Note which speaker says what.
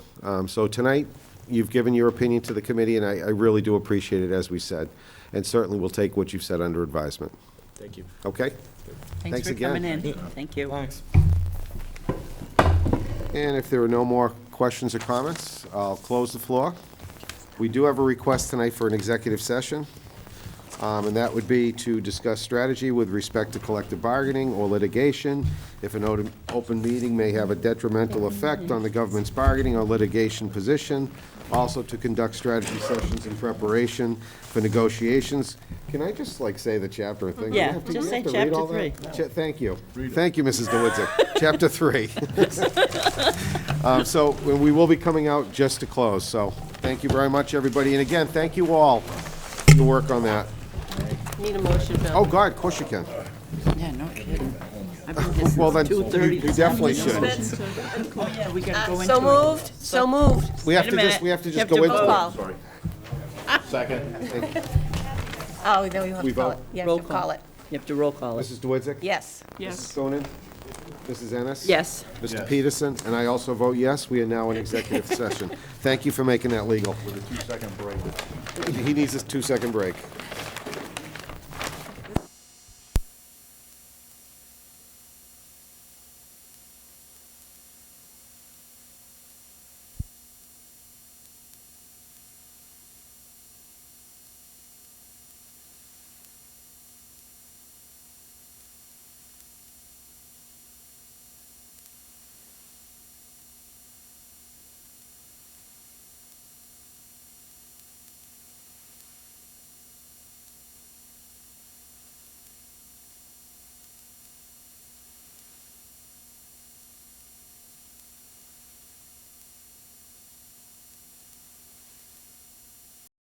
Speaker 1: Um, So tonight, you've given your opinion to the committee, and I, I really do appreciate it, as we said. And certainly, we'll take what you've said under advisement.
Speaker 2: Thank you.
Speaker 1: Okay? Thanks
Speaker 3: Thanks for
Speaker 1: again.
Speaker 3: coming in. Thank you.
Speaker 2: Thanks.
Speaker 1: And if there are no more questions or comments, I'll close the floor. We do have a request tonight for an executive session, um, and that would be to discuss strategy with respect to collective bargaining or litigation. If an open- open meeting may have a detrimental effect on the government's bargaining or litigation position, also to conduct strategy sessions in preparation for negotiations. Can I just like say the chapter and thing? Do I
Speaker 3: Yeah,
Speaker 1: have to-
Speaker 3: just
Speaker 1: do I have
Speaker 3: say
Speaker 1: to read
Speaker 3: chapter
Speaker 1: all that? Cha- Thank you. Thank you, Mrs. DeWitzik. Chapter three. Um, So we- we will be coming out just to close, so thank you very much, everybody. And again, thank you all for your work on that.
Speaker 3: Need a motion,
Speaker 1: Oh,
Speaker 3: Bill?
Speaker 1: God, of course you can.
Speaker 3: Yeah, no kidding. I've been here
Speaker 1: Oh. Well,
Speaker 3: since
Speaker 1: then, you
Speaker 3: 2:30
Speaker 1: you
Speaker 3: this
Speaker 1: definitely
Speaker 3: afternoon.
Speaker 1: should.
Speaker 3: Oh, yeah, we gotta go into it.
Speaker 4: So moved, so moved.
Speaker 1: We have
Speaker 3: Wait
Speaker 1: to just,
Speaker 3: a minute.
Speaker 1: we have to
Speaker 3: You
Speaker 1: just
Speaker 3: have
Speaker 1: go
Speaker 3: to
Speaker 1: into
Speaker 3: vote.
Speaker 1: it.
Speaker 4: Call. Sorry. Second. Oh, no, you have
Speaker 1: We
Speaker 4: to call
Speaker 1: vote?
Speaker 4: it. You
Speaker 3: Roll
Speaker 4: have to call it.
Speaker 3: You have to roll call it.
Speaker 1: Mrs. DeWitzik?
Speaker 4: Yes.
Speaker 1: Mrs. Stonin? Mrs. Ennis?
Speaker 3: Yes.
Speaker 1: Mr. Peterson? And I also vote yes. We are now in executive session. Thank you for making that legal. With a two-second break. He needs a two-second break.